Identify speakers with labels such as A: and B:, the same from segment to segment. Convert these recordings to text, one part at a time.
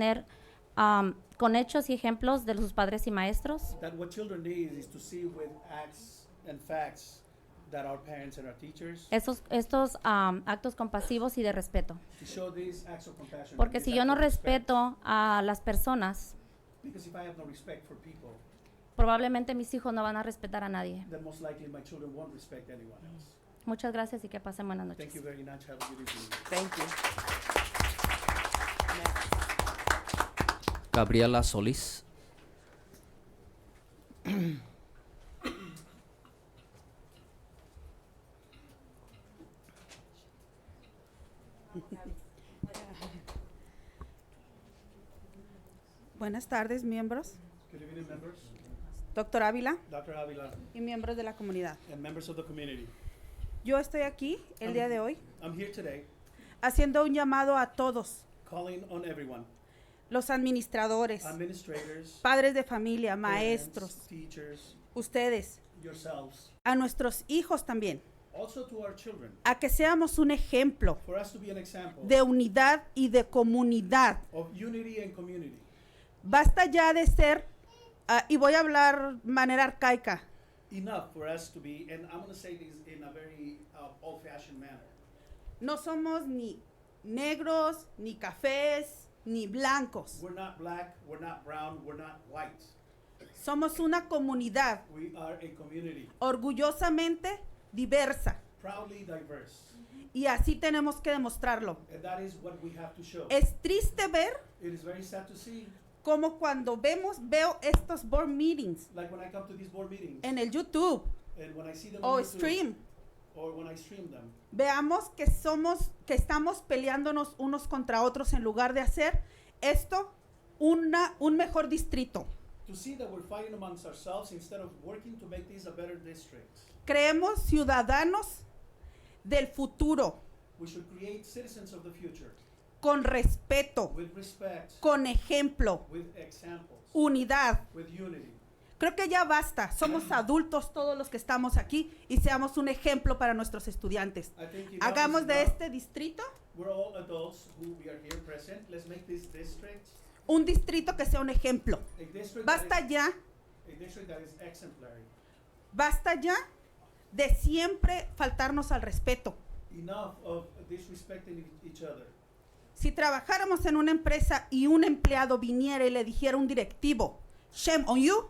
A: tener am, con hechos y ejemplos de sus padres y maestros,
B: that what children need is to see with acts and facts that our parents and our teachers
A: esos, estos am, actos compasivos y de respeto.
B: to show these acts of compassion.
A: Porque
B: and
A: si
B: these
A: yo
B: acts
A: no
B: of respect.
A: respeto a las personas,
B: because if I have no respect for people,
A: probablemente mis hijos no van a respetar a nadie.
B: then most likely my children won't respect anyone else.
A: Muchas gracias y que pasen buenas
B: Thank
A: noches.
B: you very much. Have a good evening.
C: Thank you.
D: Gabriela Solís.
E: Buenas tardes, miembros,
B: Good evening, members.
E: doctor Ávila
B: Dr. Avila
E: y miembros de la comunidad.
B: and members of the community.
E: Yo estoy aquí el día de hoy
B: I'm here today
E: haciendo un llamado a todos,
B: calling on everyone,
E: los administradores,
B: administrators,
E: padres de familia,
B: parents,
E: maestros,
B: teachers,
E: ustedes,
B: yourselves,
E: a nuestros hijos también,
B: also to our children,
E: a que seamos un ejemplo
B: for us to be an example
E: de unidad y de comunidad.
B: of unity and community.
E: Basta ya de ser, ah, y voy a hablar manera arcaica,
B: enough for us to be, and I'm going to say this in a very uh, old fashioned manner.
E: no somos ni negros, ni cafés, ni blancos.
B: We're not black, we're not brown, we're not white.
E: Somos una comunidad
B: We are a community,
E: orgullosamente diversa.
B: proudly diverse.
E: Y así tenemos que demostrarlo.
B: And that is what we have to show.
E: Es triste ver
B: It is very sad to see,
E: como cuando vemos, veo estos board meetings
B: like when I come to these board meetings
E: en el YouTube
B: and when I see them
E: o
B: on YouTube,
E: Oh, stream,
B: or when I stream them,
E: veamos que somos, que estamos peleándonos unos contra otros en lugar de hacer esto una, un mejor distrito.
B: to see that we're fighting amongst ourselves instead of working to make this a better district.
E: Creemos ciudadanos del futuro,
B: We should create citizens of the future
E: con respeto,
B: with respect,
E: con ejemplo,
B: with examples,
E: unidad,
B: with unity.
E: Creo que ya basta. Somos adultos todos los que estamos aquí y seamos un ejemplo para nuestros estudiantes.
B: I think enough is
E: Hagamos de
B: enough.
E: este distrito
B: We're all adults who we are here present. Let's make this district
E: un distrito que sea un ejemplo.
B: a district,
E: Basta
B: that,
E: ya,
B: is, a district that is exemplary.
E: basta ya de siempre faltarnos al respeto.
B: Enough of disrespecting e- each other.
E: Si trabajáramos en una empresa y un empleado viniera y le dijera a un directivo, shame on you,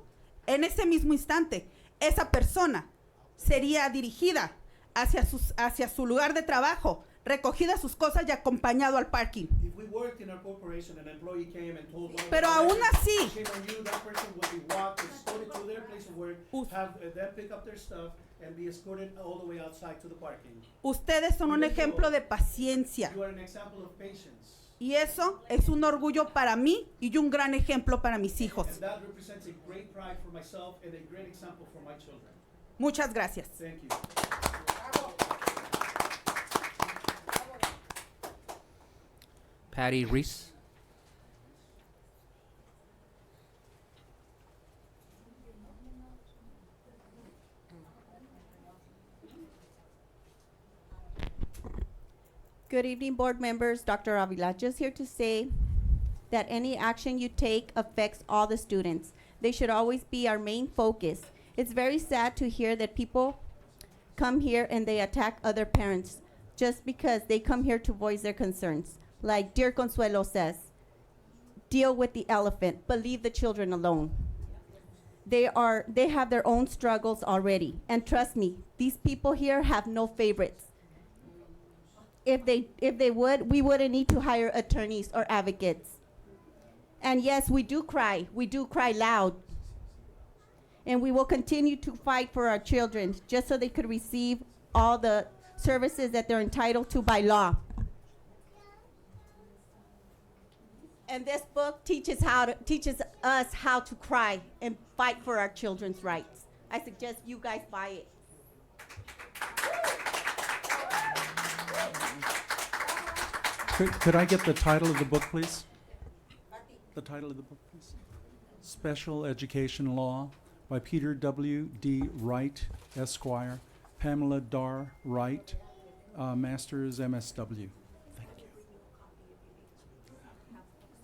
E: en ese mismo instante, esa persona sería dirigida hacia, sus, hacia su lugar de trabajo, recogida sus cosas y acompañado al parking.
B: If we worked in our corporation, an employee came and told one of
E: Pero
B: our
E: aún
B: workers,
E: así-
B: "Shame on you, that person would be walked, escorted to their place of work,
E: Us-
B: have uh, them pick up their stuff, and be escorted all the way outside to the parking.
E: Ustedes son un
B: Mire, yo-
E: ejemplo de paciencia
B: You are an example of patience.
E: y eso es un orgullo para mí y un gran ejemplo para mis hijos.
B: And that represents a great pride for myself and a great example for my children.
E: Muchas gracias.
B: Thank you.
D: Patty Reese.
F: Good evening, board members. Dr. Avila, just here to say that any action you take affects all the students. They should always be our main focus. It's very sad to hear that people come here and they attack other parents just because they come here to voice their concerns. Like dear Consuelo says, deal with the elephant, but leave the children alone. They are they have their own struggles already. And trust me, these people here have no favorites if they if they would, we wouldn't need to hire attorneys or advocates. And yes, we do cry. We do cry loud. And we will continue to fight for our children just so they could receive all the services that they're entitled to by law. And this book teaches how to, teaches us how to cry and fight for our children's rights. I suggest you guys buy it.
G: Could, could I get the title of the book, please? The title of the book, please. Special Education Law by Peter W. D. Wright, Esquire, Pamela Dar Wright, uh, Masters MSW.